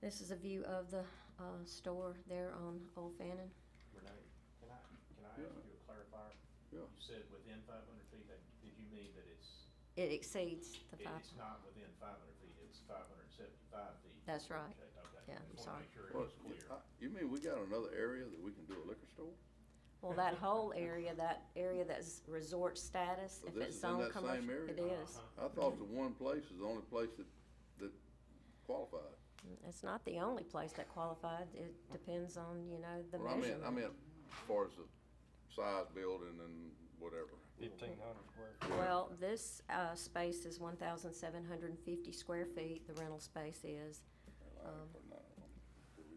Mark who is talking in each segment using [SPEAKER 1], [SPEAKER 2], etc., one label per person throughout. [SPEAKER 1] This is a view of the uh, store there on Old Fannin.
[SPEAKER 2] Renee, can I, can I ask
[SPEAKER 3] Yeah.
[SPEAKER 2] you a clarifier?
[SPEAKER 3] Yeah.
[SPEAKER 2] You said within five hundred feet, that, did you mean that it's,
[SPEAKER 1] It exceeds the
[SPEAKER 2] it-
[SPEAKER 1] five,
[SPEAKER 2] it's not within five hundred feet, it's five hundred and seventy-five feet?
[SPEAKER 1] That's right.
[SPEAKER 2] Okay, okay.
[SPEAKER 1] Yeah, I'm
[SPEAKER 2] Just
[SPEAKER 1] sorry.
[SPEAKER 2] wanna make sure it
[SPEAKER 3] Well,
[SPEAKER 2] was clear.
[SPEAKER 3] I- Uh, You mean we got another area that we can do a liquor store?
[SPEAKER 1] well, that whole area, that area that's resort status, if
[SPEAKER 3] So
[SPEAKER 1] it's
[SPEAKER 3] this is in
[SPEAKER 1] zone
[SPEAKER 3] that same
[SPEAKER 1] commercial,
[SPEAKER 3] area?
[SPEAKER 1] it is.
[SPEAKER 2] Uh-huh.
[SPEAKER 3] I thought the one place is the only place that, that qualified.
[SPEAKER 1] It's not the only place that qualified, it depends on, you know, the
[SPEAKER 3] Well, I meant, I
[SPEAKER 1] measurement.
[SPEAKER 3] meant as far as the size building and whatever.
[SPEAKER 4] Fifteen hundred square feet.
[SPEAKER 1] Well, this uh, space is one thousand seven hundred and fifty square feet, the rental space is. Um,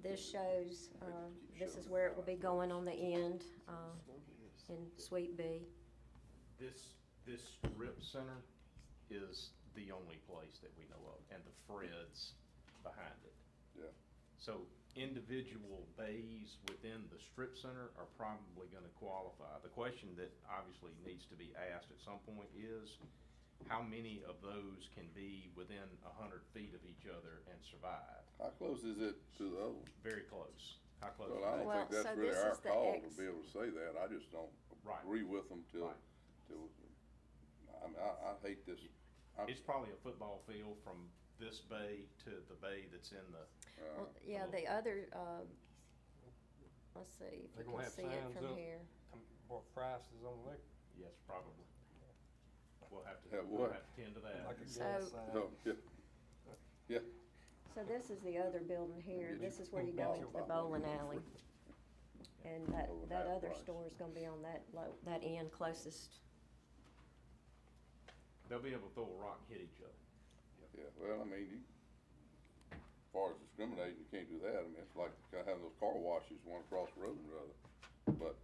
[SPEAKER 1] This shows, uh, this is where it will be going on the end, uh, in Suite B.
[SPEAKER 2] This, this rip center is the only place that we know of, and the Fred's behind it.
[SPEAKER 3] Yeah.
[SPEAKER 2] So individual bays within the strip center are probably gonna qualify. The question that obviously needs to be asked at some point is, how many of those can be within a hundred feet of each other and survive?
[SPEAKER 3] How close is it to the other one?
[SPEAKER 2] Very close. How close?
[SPEAKER 3] Well,
[SPEAKER 2] is
[SPEAKER 3] I don't
[SPEAKER 1] Well,
[SPEAKER 3] think
[SPEAKER 1] so
[SPEAKER 3] that's really
[SPEAKER 1] this
[SPEAKER 3] our
[SPEAKER 1] is the
[SPEAKER 3] call
[SPEAKER 1] ex-
[SPEAKER 3] to be able to say that, I just don't
[SPEAKER 2] Right.
[SPEAKER 3] agree with them till,
[SPEAKER 2] Right.
[SPEAKER 3] till, I mean, I, I hate this. I-
[SPEAKER 2] that? It's probably a football field from this bay to the bay that's in the,
[SPEAKER 3] uh,
[SPEAKER 1] Well, yeah, the other, um, let's see if
[SPEAKER 4] They're
[SPEAKER 1] we can
[SPEAKER 4] gonna have
[SPEAKER 1] see it
[SPEAKER 4] signs
[SPEAKER 1] from
[SPEAKER 4] up.
[SPEAKER 1] here.
[SPEAKER 4] What prices on liquor,
[SPEAKER 2] yes, probably. We'll have to,
[SPEAKER 3] Have
[SPEAKER 2] we'll
[SPEAKER 3] what?
[SPEAKER 2] have to tend to that.
[SPEAKER 4] like a
[SPEAKER 1] So-
[SPEAKER 4] gas uh, sign.
[SPEAKER 3] Oh, yeah,
[SPEAKER 1] So this is the other building here,
[SPEAKER 3] Get
[SPEAKER 1] this
[SPEAKER 3] your
[SPEAKER 1] is where you go
[SPEAKER 3] ball
[SPEAKER 1] into the
[SPEAKER 3] back.
[SPEAKER 1] bowling alley. And that,
[SPEAKER 3] Over
[SPEAKER 1] that
[SPEAKER 3] half
[SPEAKER 1] other
[SPEAKER 3] price.
[SPEAKER 1] store is gonna be on that low, that end closest.
[SPEAKER 2] They'll be able to throw a rock and hit each other.
[SPEAKER 3] yeah, well, I mean, you, as far as discriminating, you can't do that, I mean, it's like kinda having those car washes, one across the road and the other. But,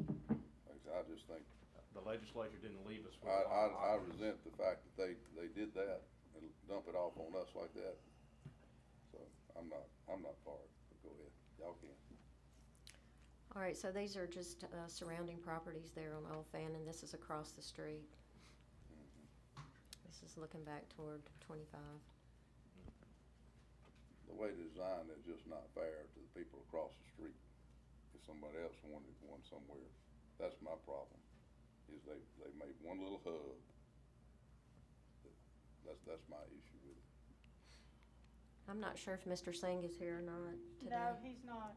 [SPEAKER 3] like I said, I just think,
[SPEAKER 2] The legislature didn't leave us with
[SPEAKER 3] I,
[SPEAKER 2] a
[SPEAKER 3] I,
[SPEAKER 2] lot of
[SPEAKER 3] I
[SPEAKER 2] options.
[SPEAKER 3] resent the fact that they, they did that and dump it off on us like that. So, I'm not, I'm not for it, but go ahead, y'all can.
[SPEAKER 1] All right, so these are just, uh, surrounding properties there on Old Fannin, this is across the street. This is looking back toward twenty-five.
[SPEAKER 3] the way it's designed is just not fair to the people across the street. If somebody else wanted one somewhere, that's my problem, is they, they made one little hub. That's, that's my issue with it.
[SPEAKER 1] I'm not sure if Mr. Singh is here or not today.
[SPEAKER 5] No, he's not.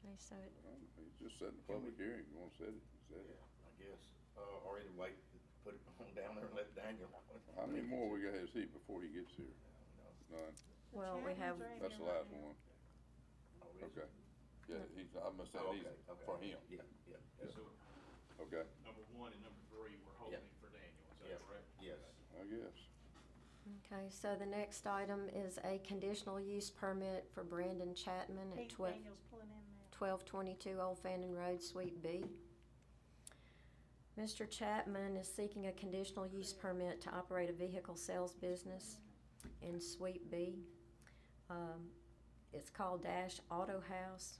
[SPEAKER 1] Okay, so it,
[SPEAKER 3] Um, It's just setting a public hearing, you wanna set it, you set it.
[SPEAKER 6] I guess, uh, or either way, put it on down there and let Daniel.
[SPEAKER 3] How many more we gotta see before he gets here? None,
[SPEAKER 1] well, we have,
[SPEAKER 5] Chairman's right
[SPEAKER 3] that's the
[SPEAKER 5] here right
[SPEAKER 3] last
[SPEAKER 5] now.
[SPEAKER 3] one, okay. Yeah, he's, I must say,
[SPEAKER 6] Oh,
[SPEAKER 3] he's,
[SPEAKER 6] okay, okay.
[SPEAKER 3] for him,
[SPEAKER 6] Yeah, yeah,
[SPEAKER 2] So
[SPEAKER 3] okay,
[SPEAKER 2] number one and number three, we're holding for Daniel, is
[SPEAKER 6] Yeah.
[SPEAKER 2] that correct?
[SPEAKER 6] yes.
[SPEAKER 3] I guess.
[SPEAKER 1] okay, so the next item is a conditional use permit for Brandon Chapman at
[SPEAKER 5] Pete
[SPEAKER 1] Mm, twelve,
[SPEAKER 5] Daniels pulling in there.
[SPEAKER 1] twelve twenty-two Old Fannin Road, Suite B. Mr. Chapman is seeking a conditional use permit to operate a vehicle sales business in Suite B. Um, it's called Dash Auto House.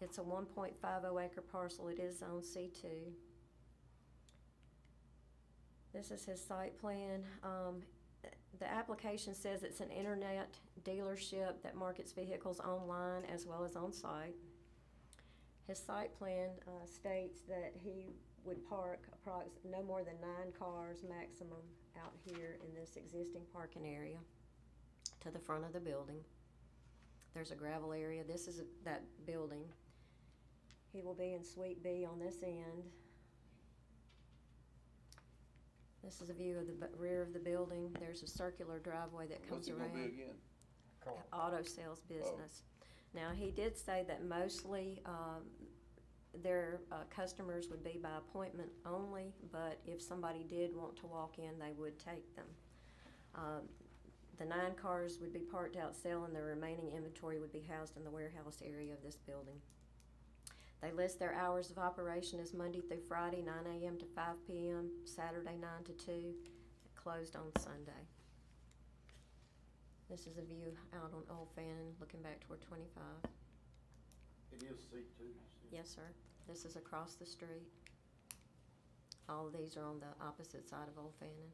[SPEAKER 1] It's a one point five oh acre parcel, it is on C two. This is his site plan, um, the application says it's an internet dealership that markets vehicles online as well as on site. His site plan, uh, states that he would park approx, no more than nine cars maximum out here in this existing parking area to the front of the building. There's a gravel area, this is that building. He will be in Suite B on this end. This is a view of the bu- rear of the building, there's a circular driveway that
[SPEAKER 3] What's
[SPEAKER 1] comes
[SPEAKER 3] it
[SPEAKER 1] around
[SPEAKER 3] gonna be again?
[SPEAKER 4] Car.
[SPEAKER 1] auto sales business. Now, he did say that mostly, um, their, uh, customers would be by appointment only, but if somebody did want to walk in, they would take them. Um, the nine cars would be parked out selling, the remaining inventory would be housed in the warehouse area of this building. They list their hours of operation as Monday through Friday, nine AM to five PM, Saturday nine to two, closed on Sunday. This is a view out on Old Fannin, looking back toward twenty-five.
[SPEAKER 6] It is C two, you said?
[SPEAKER 1] Yes, sir. This is across the street. All of these are on the opposite side of Old Fannin.